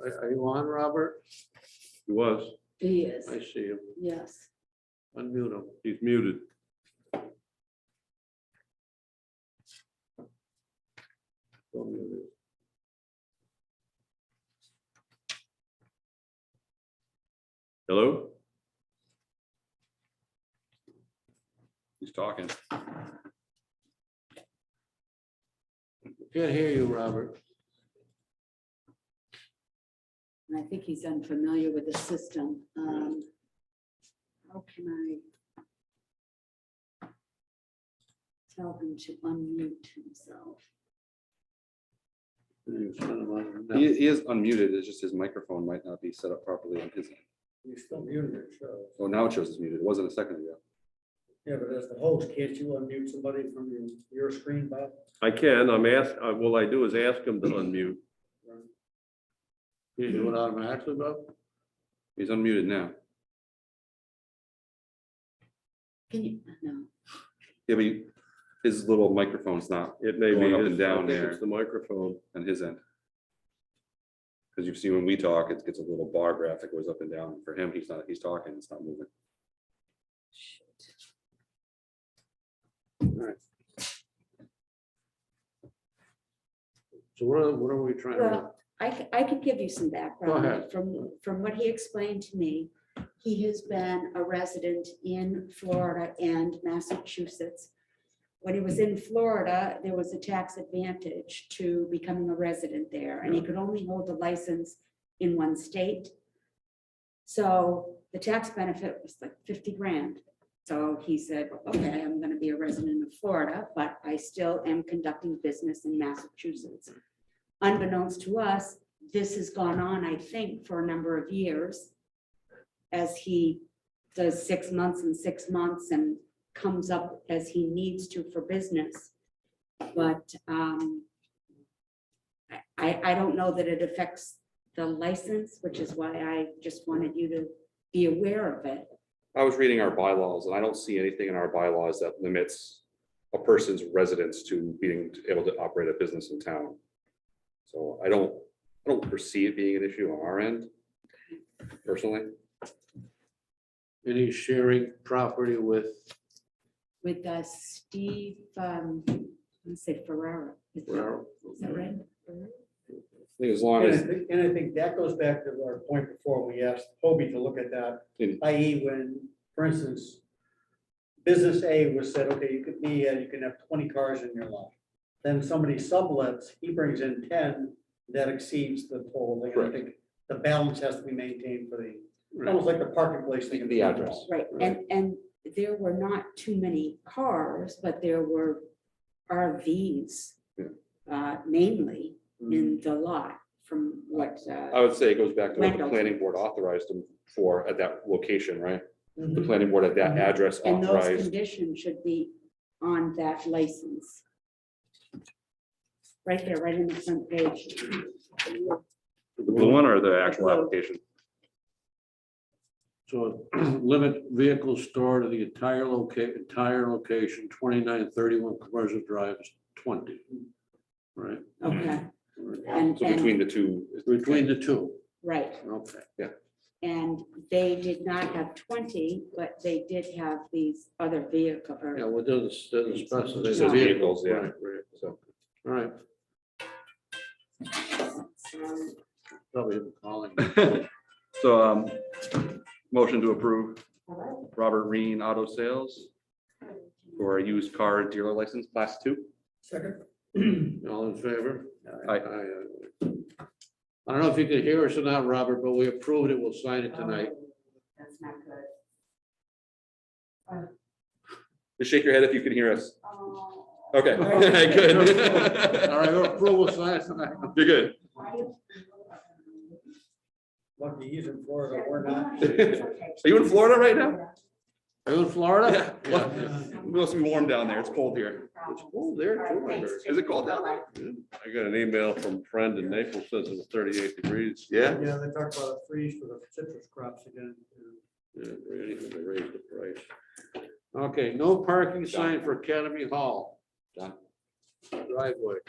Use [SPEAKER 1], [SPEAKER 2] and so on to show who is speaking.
[SPEAKER 1] Are are you on, Robert?
[SPEAKER 2] He was.
[SPEAKER 3] He is,
[SPEAKER 1] I see him.
[SPEAKER 3] yes.
[SPEAKER 1] Unmute him.
[SPEAKER 2] He's muted.
[SPEAKER 1] Don't mute him.
[SPEAKER 2] Hello? He's talking.
[SPEAKER 1] Can't hear you, Robert.
[SPEAKER 3] And I think he's unfamiliar with the system. Um, How can I tell him to unmute himself?
[SPEAKER 1] You sent him on. No.
[SPEAKER 4] He, he is unmuted, it's just his microphone might not be set up properly on his end.
[SPEAKER 5] You still muted it, so,
[SPEAKER 4] Oh, now it shows it's muted, it wasn't a second ago.
[SPEAKER 5] yeah, but as the host, can't you unmute somebody from your, your screen, Bob?
[SPEAKER 2] I can, I'm asked, all I do is ask him to unmute.
[SPEAKER 1] You do it automatically, Bob?
[SPEAKER 4] He's unmuted now.
[SPEAKER 3] Can you, no,
[SPEAKER 4] Yeah, but he- his little microphone's not
[SPEAKER 2] It may be.
[SPEAKER 4] Going up
[SPEAKER 2] his-
[SPEAKER 4] and down
[SPEAKER 2] I think
[SPEAKER 4] there.
[SPEAKER 2] It's the microphone.
[SPEAKER 4] on his end. Because you see, when we talk, it gets a little bar graphic, goes up and down. For him, he's not, he's talking, it's not moving.
[SPEAKER 3] shoot.
[SPEAKER 1] So what are, what are we trying to?
[SPEAKER 3] Well, I, c- I could give you some background.
[SPEAKER 1] ahead.
[SPEAKER 3] From, from what he explained to me, he has been a resident in Florida and Massachusetts. When he was in Florida, there was a tax advantage to becoming a resident there, and he could only hold a license in one state. So the tax benefit was like fifty grand. So he said, okay, I'm gonna be a resident of Florida, but I still am conducting business in Massachusetts unbeknownst to us, this has gone on, I think, for a number of years. As he does six months and six months and comes up as he needs to for business. But um. I- I, I don't know that it affects the license, which is why I just wanted you to be aware of it.
[SPEAKER 4] I was reading our bylaws and I don't see anything in our bylaws that limits a person's residence to being able to operate a business in town. So I don't, I don't foresee it being an issue on our end personally.
[SPEAKER 1] Any sharing property with,
[SPEAKER 3] With uh, Steve, um, let's say Ferrara. Is that
[SPEAKER 1] well,
[SPEAKER 3] is that right?
[SPEAKER 4] I think as long
[SPEAKER 5] And I
[SPEAKER 4] as,
[SPEAKER 5] think, and I think that goes back to our point before, we asked Hobie to look at that,
[SPEAKER 4] Hmm.
[SPEAKER 5] i.e. when, for instance, business A was said, okay, you could be, uh, you can have twenty cars in your lot. Then somebody sublets, he brings in ten, that exceeds the total, and I
[SPEAKER 4] Correct.
[SPEAKER 5] think the balance has to be maintained for the,
[SPEAKER 1] right,
[SPEAKER 5] almost like the parking place thing. in
[SPEAKER 4] The address.
[SPEAKER 3] Right, and, and there were not too many cars, but there were RVs.
[SPEAKER 4] Yeah. Mm-hmm.
[SPEAKER 3] Uh, mainly in the lot from what,
[SPEAKER 4] I
[SPEAKER 3] uh,
[SPEAKER 4] would say it goes back to what the
[SPEAKER 3] Rentals.
[SPEAKER 4] planning board authorized them for at that location, right? The
[SPEAKER 5] Mhm.
[SPEAKER 4] planning board at that
[SPEAKER 3] Mhm.
[SPEAKER 4] address
[SPEAKER 3] and those
[SPEAKER 4] authorized.
[SPEAKER 3] conditions should be on that license. Right there, right in the front page.
[SPEAKER 2] The blue one or the actual
[SPEAKER 3] Blue.
[SPEAKER 2] application?
[SPEAKER 1] so limit vehicles stored to the entire loca, entire location, twenty-nine thirty-one commercial drive is twenty. Right?
[SPEAKER 3] Okay, and,
[SPEAKER 4] So between
[SPEAKER 3] and,
[SPEAKER 4] the two,
[SPEAKER 1] Between the two,
[SPEAKER 3] right,
[SPEAKER 1] okay.
[SPEAKER 3] and they did not have twenty, but they did have these other vehicle, or
[SPEAKER 1] Yeah, well, it doesn't, doesn't specify.
[SPEAKER 3] Just says
[SPEAKER 4] vehicles, yeah.
[SPEAKER 1] Right, right.
[SPEAKER 4] so
[SPEAKER 1] All right,
[SPEAKER 3] so-
[SPEAKER 1] probably him calling.
[SPEAKER 4] So, um, motion to approve
[SPEAKER 3] All right.
[SPEAKER 4] Robert Reen Auto Sales for a used car dealer license, class two.
[SPEAKER 5] Second.
[SPEAKER 1] All in favor?
[SPEAKER 4] Aye.
[SPEAKER 1] aye. I don't know if you can hear us or not, Robert, but we approved it. We'll sign it tonight.
[SPEAKER 3] That's not good.
[SPEAKER 4] Just shake your head if you can hear us.
[SPEAKER 3] Oh,
[SPEAKER 4] Okay,
[SPEAKER 1] All
[SPEAKER 4] good.
[SPEAKER 1] right, we'll approve, we'll sign it tonight.
[SPEAKER 4] You're good.
[SPEAKER 3] why do-
[SPEAKER 5] Lucky he's in Florida,
[SPEAKER 3] Um,
[SPEAKER 5] we're not.
[SPEAKER 4] Are you in Florida right now?
[SPEAKER 1] Are you in Florida?
[SPEAKER 4] Yeah. What? It must be warm down there. It's cold here.
[SPEAKER 1] It's cold there too. I heard.
[SPEAKER 4] Is it cold down there?
[SPEAKER 2] I got an email from Friend in Naples, says it was thirty-eight degrees.
[SPEAKER 4] Yeah.
[SPEAKER 5] Yeah, they talked about a freeze for the citrus crops again.
[SPEAKER 1] Yeah, anything to raise the price. Okay, no parking sign for Academy Hall.
[SPEAKER 4] Done.
[SPEAKER 1] Driveway.